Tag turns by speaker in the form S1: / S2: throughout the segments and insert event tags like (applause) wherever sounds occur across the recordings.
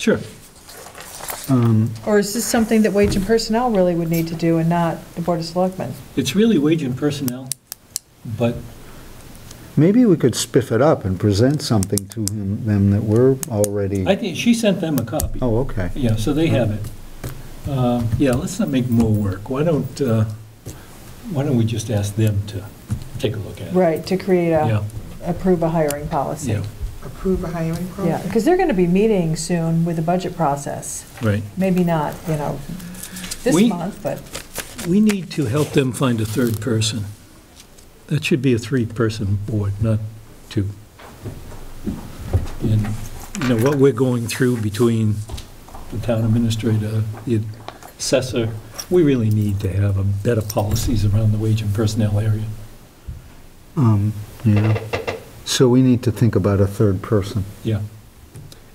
S1: Sure.
S2: Or is this something that Wage and Personnel really would need to do and not the Board of Selectmen?
S1: It's really wage and personnel, but
S3: Maybe we could spiff it up and present something to him- them that we're already,
S1: I think, she sent them a copy.
S3: oh, okay.
S1: Yeah, so they have it. Um, Yeah, let's not make more work. Why don't, uh, why don't we just ask them to take a look at it?
S2: Right, to create
S1: Yeah,
S2: a, approve a hiring policy.
S1: yeah,
S4: approve a hiring
S2: Yeah,
S4: program?
S2: because they're going to be meeting soon with the budget process.
S1: right.
S2: Maybe not, you know, this
S1: We-
S2: month, but
S1: We need to help them find a third person. That should be a three-person board, not two. And, you know, what we're going through between the town administrator, the assessor, we really need to have a better policies around the wage and personnel area.
S3: Um, Yeah. So we need to think about a third person.
S1: Yeah.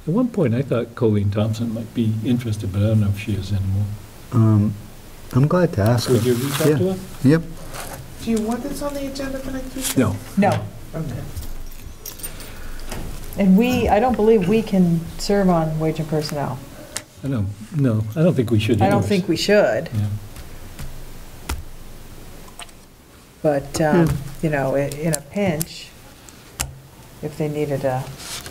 S1: At one point, I thought Colleen Thompson might be interested, but I don't know if she is anymore.
S3: Um, I'm glad to ask
S1: Would you
S3: her.
S1: reach out to her?
S3: Yep.
S4: Do you want this on the agenda for next week?
S1: No.
S2: no.
S4: Okay.
S2: And we, I don't believe we can serve on Wage and Personnel.
S1: I don't, no, I don't think we should.
S2: I don't think we should,
S1: Yeah.
S2: but, um, you know, i- in a pinch, if they needed a,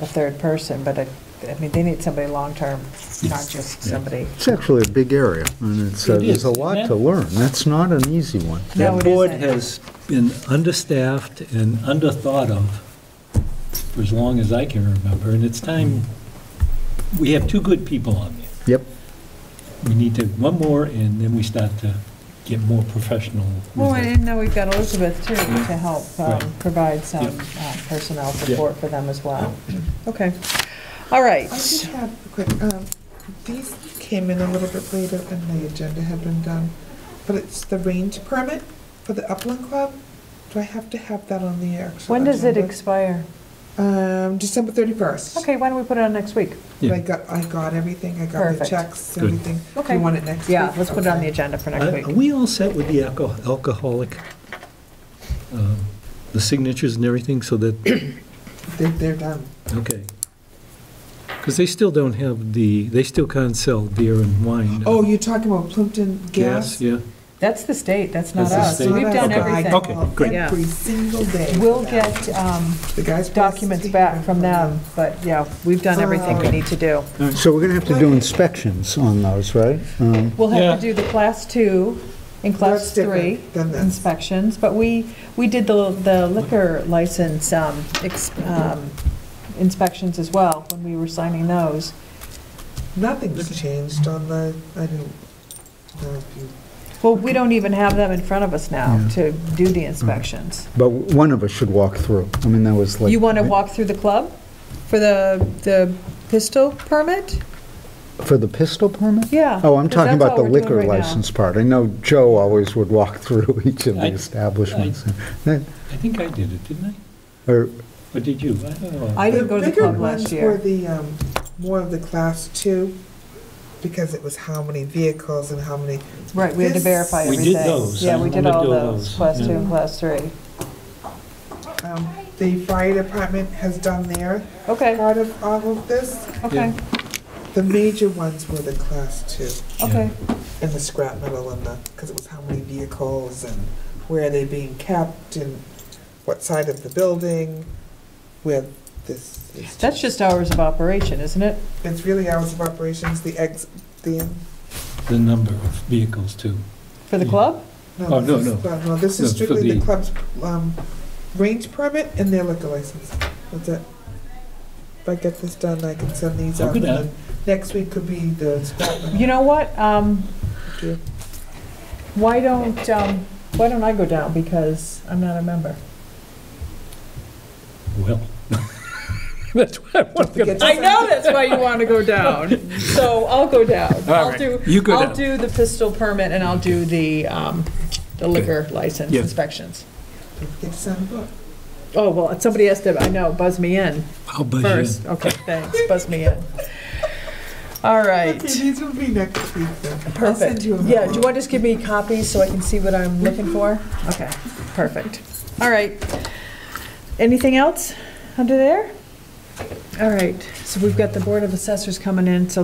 S2: a third person, but I, I mean, they need somebody long-term, not just somebody.
S3: It's actually a big area, and it's, uh,
S1: It
S3: there's
S1: is,
S3: a
S1: isn't
S3: lot
S1: it?
S3: to learn. That's not an easy one.
S2: No,
S1: That
S2: it
S1: board
S2: isn't.
S1: has been understaffed and underthought of for as long as I can remember, and it's time, we have two good people on there.
S3: Yep.
S1: We need to, one more, and then we start to get more professional. with
S2: Well,
S1: it.
S2: and now we've got Elizabeth too, to help um,
S1: Right.
S2: provide some
S1: Yep.
S2: uh, personnel
S1: Yep.
S2: support for them as well. Okay, all right.
S4: I just have a quick, um, these came in a little bit later than the agenda had been done, but it's the range permit for the Upland Club. Do I have to have that on the actual?
S2: When does it
S4: agenda?
S2: expire?
S4: Um, December thirty-first.
S2: Okay, why don't we put it on next week?
S4: I got, I got everything, I got the
S2: Perfect.
S4: checks,
S1: Good.
S4: everything.
S2: Okay.
S4: You want it next week?
S2: Yeah, let's put it on the
S4: Okay.
S2: agenda for
S1: Are
S2: next
S1: are
S2: week.
S1: we all set with the alco- alcoholic, um, the signatures and everything, so that,
S4: They- They're done.
S1: okay. Because they still don't have the, they still can't sell beer and wine. uh,
S4: Oh, you're talking about Plimpton Gas?
S1: Gas, yeah.
S2: That's the state, that's not
S1: That's the
S2: us.
S1: state.
S2: We've done
S1: Okay.
S2: everything.
S1: Okay, good.
S4: Every single day. for
S2: We'll
S4: that.
S2: get um,
S4: The guys.
S2: documents back from them, but yeah, we've done everything we need to do.
S3: So we're going to have to do inspections on those, right? Um,
S2: We'll have to
S1: Yeah.
S2: do the class two and class
S4: That's different
S2: three
S4: than this.
S2: inspections, but we, we did the the liquor license um, ex- um, inspections as well when we were signing those.
S4: Nothing's changed on the, I don't know if you,
S2: Well, we don't even have them in front of us now
S3: Yeah.
S2: to do the inspections.
S3: But one of us should walk through. I mean, that was like...
S2: You want to walk through the club for the, the pistol permit?
S3: For the pistol permit?
S2: Yeah.
S3: Oh, I'm
S2: 'cause that's
S3: talking about
S2: all
S3: the
S2: we're doing
S3: liquor
S2: right now.
S3: license part. I know Joe always would walk (laughs) through each of
S1: I-
S3: the establishments. Then-
S1: I think I did it, didn't I?
S3: Or,
S1: Or did you? I don't know.
S2: I didn't go to the club last
S4: The bigger
S2: year.
S4: ones were the, um, more of the class two, because it was how many vehicles and how many,
S2: Right, we had to
S4: this-
S2: verify
S1: We
S2: everything.
S1: did those.
S2: Yeah,
S1: I
S2: we did
S1: wanna
S2: all
S1: do
S2: those,
S1: those,
S2: class two
S1: yeah.
S2: and class three.
S4: um, the fire department has done their
S2: Okay,
S4: part of all of this.
S2: okay,
S4: The major ones were the class two,
S2: okay.
S4: and the scrap metal and the, because it was how many vehicles and where are they being kept and what side of the building, where this is.
S2: That's just hours of operation, isn't it?
S4: It's really hours of operations, the ex, the,
S1: The number of vehicles, too.
S2: For the club?
S1: Oh,
S4: no,
S1: no,
S4: this
S1: no.
S4: is, no, this is
S1: No, for
S4: strictly the
S1: the-
S4: club's, um, range permit and their liquor license. That's it. If I get this done, I can send these
S1: I'll
S4: out,
S1: do
S4: and
S1: that.
S4: then next week could be the scrap metal.
S2: You know what? Um,
S4: Sure.
S2: Why don't, um, why don't I go down because I'm not a member?
S1: Well, (laughs) that's why I want to go.
S4: forget to- I know
S2: that's why you want to go down. (laughs) So I'll go down.
S1: All right, you go down.
S2: do the pistol permit and I'll do the, um, the license
S1: Yeah.
S2: inspections.
S4: Don't forget to sign the book.
S2: Oh, well, somebody has to, I know, buzz me in.
S1: I'll buzz you in.
S2: first. Okay, thanks. Buzz me in. All right.
S4: Okay, these will be next week then. I'll
S2: Perfect.
S4: send you them.
S2: Yeah, do you want to just give me copies so I can see what I'm looking for? Okay, perfect. All right. Anything else under there? All right, so we've got the Board of Assessors coming in, so